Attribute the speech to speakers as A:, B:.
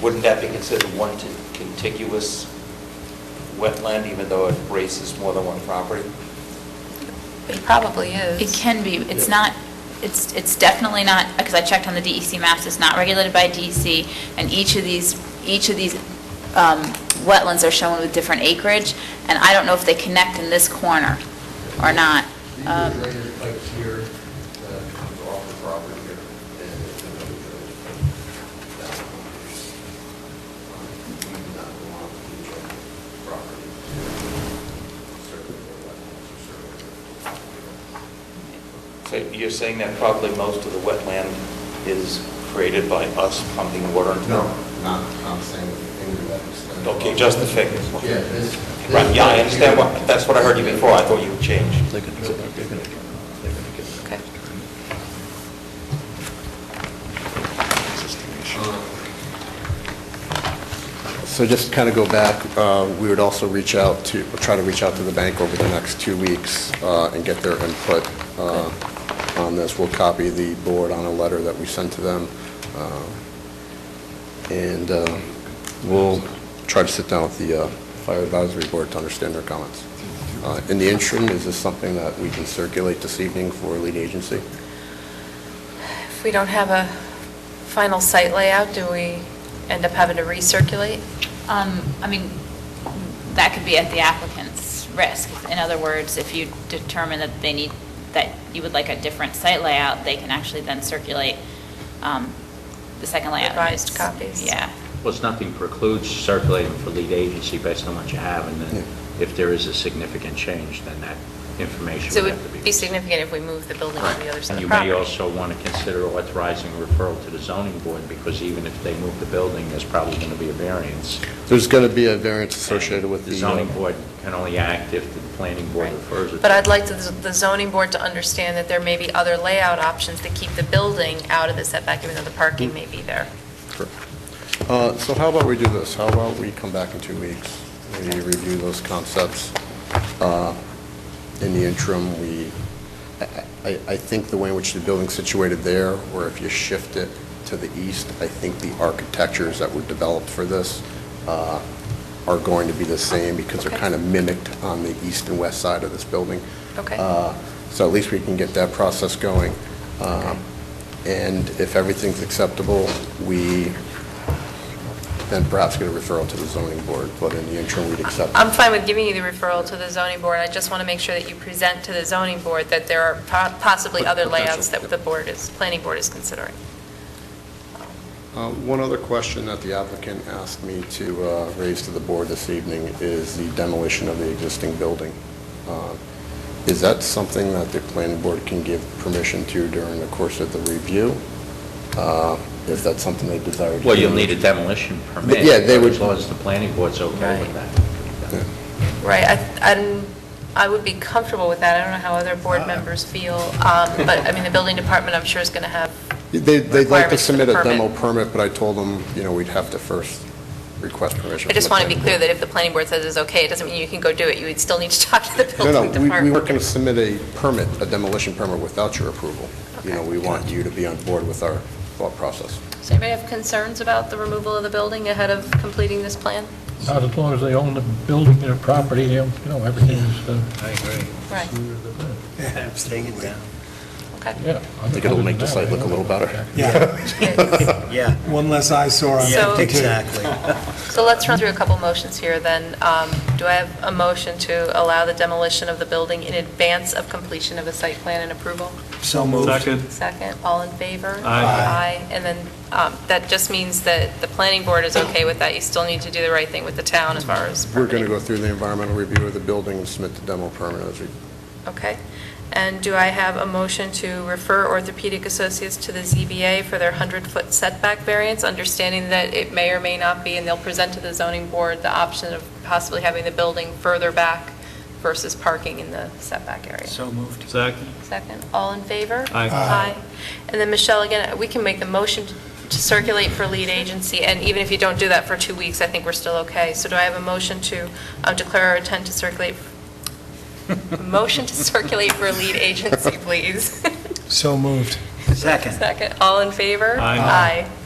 A: wouldn't that be considered one t- contiguous wetland, even though it races more than one property?
B: It probably is.
C: It can be, it's
A: Yeah.
C: not, it's, it's definitely not, because I checked on the DEC maps, it's not regulated by DEC, and each of these, each of these um, wetlands are shown with different acreage, and I don't know if they connect in this corner or not.
D: These are
C: Um,
D: drainage pipes here that comes off the property here, and it's another drainage pipe. That's what it is. We do not belong to each other's property. Certainly, the wetlands are certainly-
A: So you're saying that probably most of the wetland is created by us pumping water into
D: No,
A: it?
D: not, I'm saying anything to that extent.
A: Okay, just the figures.
D: Yeah, this.
A: Right, yeah, I understand
D: why.
A: what, that's what I heard you before, I thought you had changed.
E: They're gonna, they're gonna, they're gonna get.
B: Okay.
F: So just to kind of go back, uh, we would also reach out to, try to reach out to the bank over the next two weeks uh, and get their input uh, on this. We'll copy the board on a letter that we sent to them, uh, and uh, we'll try to sit down with the uh, Fire Advisory Board to understand their comments. Uh, In the interim, is this something that we can circulate this evening for lead agency?
B: If we don't have a final site layout, do we end up having to recirculate?
C: Um, I mean, that could be at the applicant's risk. In other words, if you determine that they need, that you would like a different site layout, they can actually then circulate um, the second layout.
B: Revised copies.
C: Yeah.
G: Well, it's nothing precludes circulating for lead agency based on what you have, and then
F: Yeah.
G: if there is a significant change, then that information
B: So
G: would
B: it
G: have to be...
B: would be significant if we moved the building to the other side
G: And
B: of
G: you
B: the
G: may
B: property.
G: also want to consider authorizing referral to the zoning board, because even if they move the building, there's probably going to be a variance.
F: There's going to be a variance associated with the...
G: The
F: uh,
G: zoning board can only act if the planning board
B: Right.
G: refers it.
B: But
G: to
B: I'd
G: them.
B: like to- the zoning board to understand that there may be other layout options to keep the building out of the setback, even though the parking may be there.
F: Sure. Uh, So how about we do this? How about we come back in two weeks? We review those concepts. Uh, In the interim, we, I- I I think the way in which the building's situated there, or if you shift it to the east, I think the architectures that were developed for this uh, are going to be the same because they're
B: Okay.
F: kind of mimicked on the east and west side of this building.
B: Okay.
F: Uh, So at least we can get that process going. Um, And if everything's acceptable, we then perhaps get a referral to the zoning board, but in the interim, we'd accept.
B: I'm fine with giving you the referral to the zoning board, I just want to make sure that you present to the zoning board that there are po- possibly other
F: Potential,
B: layouts that
F: yep.
B: the board is, planning board is considering.
F: Uh, One other question that the applicant asked me to uh, raise to the board this evening is the demolition of the existing building. Uh, Is that something that the planning board can give permission to during the course of the review? Uh, If that's something they desire to do?
G: Well, you'll need a demolition permit.
F: Yeah, they would-
G: As long as the planning board's okay with
B: Right.
F: Yeah.
G: that.
B: Right, I- I'm, I would be comfortable with that, I don't know how other
F: Uh,
B: board members feel, um, but, I mean, the building department, I'm sure, is going to have
F: They- They'd like to
B: Requirements for the
F: submit a demo
B: permit.
F: permit, but I told them, you know, we'd have to first request permission.
B: I just
F: from the
B: want to be clear
F: planning
B: that if the planning board says it's okay, it doesn't mean you can go do it. You would still need to talk to the
F: board.
B: building
F: No, no, we- we
B: department.
F: weren't going to submit a permit, a demolition permit without your approval. You know,
B: Okay.
F: we want you to be on board with our thought process.
B: Does anybody have concerns about the removal of the building ahead of completing this plan?
H: Not as long as they own the building, their property, you know, you know, everything is, uh,
E: I agree.
B: Right,
E: Take it down.
B: okay.
H: yeah.
F: I think it'll make the site look a little better.
I: Yeah,
E: Yeah.
I: one less eyesore on
B: So-
I: that.
E: Exactly.
B: So let's run through a couple motions here then. Um, Do I have a motion to allow the demolition of the building in advance of completion of the site plan and approval?
E: So moved.
B: Second, all in favor?
I: Aye.
B: Aye, and then um, that just means that the planning board is okay with that. You still need to do the right thing with the town as far as
F: We're going to
B: permitting.
F: go through the environmental review of the building and submit the demo permit as we
B: Okay. And do I have a motion to refer Orthopedic Associates to the ZBA for their 100-foot setback variance, understanding that it may or may not be, and they'll present to the zoning board the option of possibly having the building further back versus parking in the setback area?
E: So moved.
B: Second, all in favor?
I: Aye. Aye.
B: And then, Michelle, again, we can make the motion to circulate for lead agency, and even if you don't do that for two weeks, I think we're still okay. So do I have a motion to uh, declare our intent to circulate, motion to circulate for lead agency, please?
I: So moved.
E: Second.
B: Second, all in favor?
I: Aye.
B: Aye.